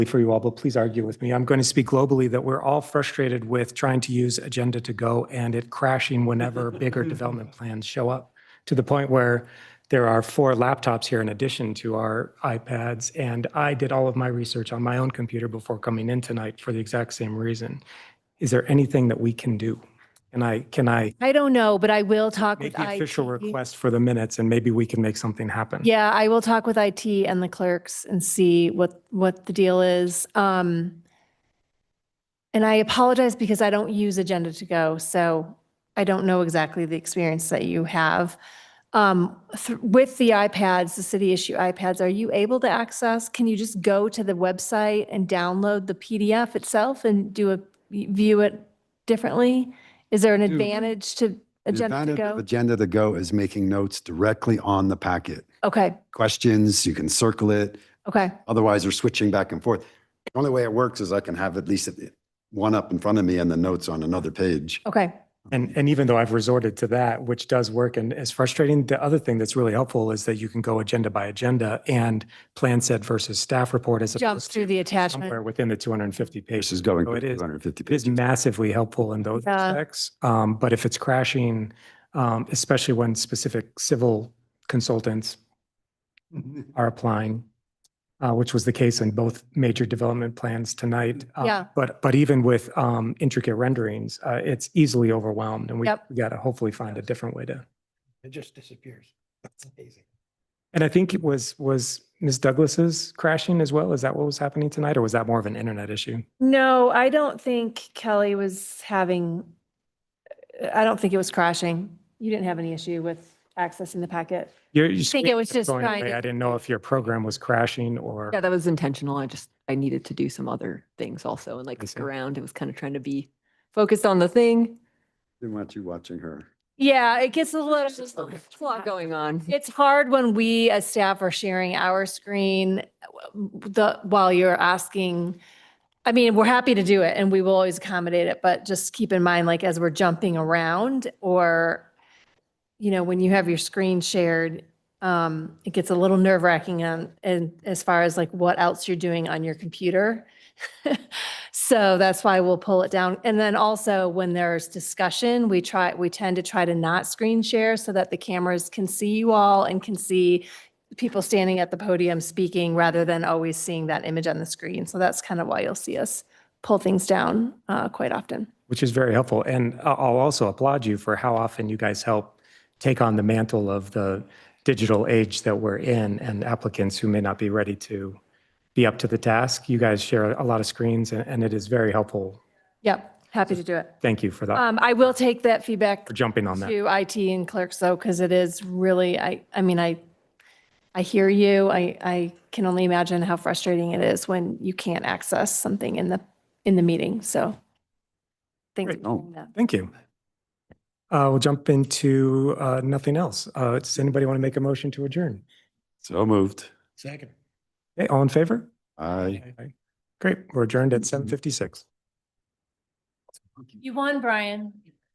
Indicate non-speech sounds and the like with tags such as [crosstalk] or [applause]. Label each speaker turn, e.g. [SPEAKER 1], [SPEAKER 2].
[SPEAKER 1] for you all, but please argue with me. I'm going to speak globally that we're all frustrated with trying to use Agenda to Go and it crashing whenever bigger development plans show up, to the point where there are four laptops here in addition to our iPads. And I did all of my research on my own computer before coming in tonight for the exact same reason. Is there anything that we can do? And I, can I
[SPEAKER 2] I don't know, but I will talk with E?
[SPEAKER 1] make
[SPEAKER 2] IT.
[SPEAKER 1] the official request for the minutes and maybe we can make something happen?
[SPEAKER 2] Yeah, I will talk with IT and the clerks and see what, what the deal is. Um, and I apologize because I don't use Agenda to Go, so I don't know exactly the experience that you have. Um, th- with the iPads, the city issue iPads, are you able to access? Can you just go to the website and download the PDF itself and do a, view it differently? Is there an
[SPEAKER 3] Dude,
[SPEAKER 2] advantage to
[SPEAKER 3] The
[SPEAKER 2] Agenda to
[SPEAKER 3] advantage of
[SPEAKER 2] Go?
[SPEAKER 3] Agenda to go is making notes directly on the packet.
[SPEAKER 2] Okay,
[SPEAKER 3] Questions, you can circle it.
[SPEAKER 2] okay.
[SPEAKER 3] Otherwise, we're switching back and forth. The only way it works is I can have at least one up in front of me and the notes on another
[SPEAKER 1] Oh,
[SPEAKER 3] page.
[SPEAKER 2] Okay,
[SPEAKER 1] And, and even though I've resorted to that, which does work and is frustrating, the other thing that's really helpful is that you can go agenda by agenda and plan set versus staff report as
[SPEAKER 2] jump
[SPEAKER 1] opposed
[SPEAKER 2] through
[SPEAKER 1] to
[SPEAKER 2] the attachment.
[SPEAKER 1] somewhere within the 250
[SPEAKER 3] This
[SPEAKER 1] pages.
[SPEAKER 3] is going
[SPEAKER 1] So it is-
[SPEAKER 3] 250
[SPEAKER 1] It is
[SPEAKER 3] pages.
[SPEAKER 1] massively helpful in those
[SPEAKER 2] Yeah.
[SPEAKER 1] respects. Um, but if it's crashing, um, especially when specific civil consultants
[SPEAKER 4] Mm-hmm.
[SPEAKER 1] are applying, uh, which was the case in both major development plans tonight. Uh,
[SPEAKER 2] Yeah.
[SPEAKER 1] But, but even with um, intricate renderings, uh, it's easily overwhelmed and we
[SPEAKER 2] Yep.
[SPEAKER 1] we got to hopefully find a different way to.
[SPEAKER 4] It just disappears. That's amazing.
[SPEAKER 1] And I think it was, was Ms. Douglas's crashing as well? Is that what was happening tonight or was that more of an internet issue?
[SPEAKER 2] No, I don't think Kelly was having, I don't think it was crashing. You didn't have any issue with accessing the packet.
[SPEAKER 1] You're- your
[SPEAKER 2] think it was
[SPEAKER 1] screen kept
[SPEAKER 2] just
[SPEAKER 1] going
[SPEAKER 2] trying
[SPEAKER 1] away.
[SPEAKER 2] to-
[SPEAKER 1] I didn't know if your program was crashing or.
[SPEAKER 5] Yeah, that was intentional. I just, I needed to do some other things also and like
[SPEAKER 1] I
[SPEAKER 5] look
[SPEAKER 1] see.
[SPEAKER 5] around. It was kind of trying to be focused on the thing.
[SPEAKER 3] Didn't want you watching her.
[SPEAKER 2] Yeah, it gets a little.
[SPEAKER 5] There's a lot going on.
[SPEAKER 2] It's hard when we as staff are sharing our screen the, while you're asking. I mean, we're happy to do it and we will always accommodate it, but just keep in mind, like as we're jumping around or, you know, when you have your screen shared, um, it gets a little nerve wracking on, and as far as like what else you're doing on your computer. [laughs] So that's why we'll pull it down. And then also when there's discussion, we try, we tend to try to not screen share so that the cameras can see you all and can see people standing at the podium speaking rather than always seeing that image on the screen. So that's kind of why you'll see us pull things down uh, quite often.
[SPEAKER 1] Which is very helpful. And I- I'll also applaud you for how often you guys help take on the mantle of the digital age that we're in and applicants who may not be ready to be up to the task. You guys share a lot of screens and, and it is very helpful.
[SPEAKER 2] Yep, happy to do it.
[SPEAKER 1] Thank you for that,
[SPEAKER 2] Um, I will take that feedback
[SPEAKER 1] for jumping on that.
[SPEAKER 2] to IT and clerks though, because it is really, I, I mean, I, I hear you. I, I can only imagine how frustrating it is when you can't access something in the, in the meeting. So thanks for
[SPEAKER 3] Great. Oh.
[SPEAKER 2] doing that.
[SPEAKER 1] Thank you. Uh, we'll jump into, uh, nothing else. Uh, does anybody want to make a motion to adjourn?
[SPEAKER 3] So moved.
[SPEAKER 4] Second.
[SPEAKER 1] Hey, all in favor?
[SPEAKER 3] I.
[SPEAKER 1] Great. We're adjourned at 7:56.
[SPEAKER 2] You won, Brian.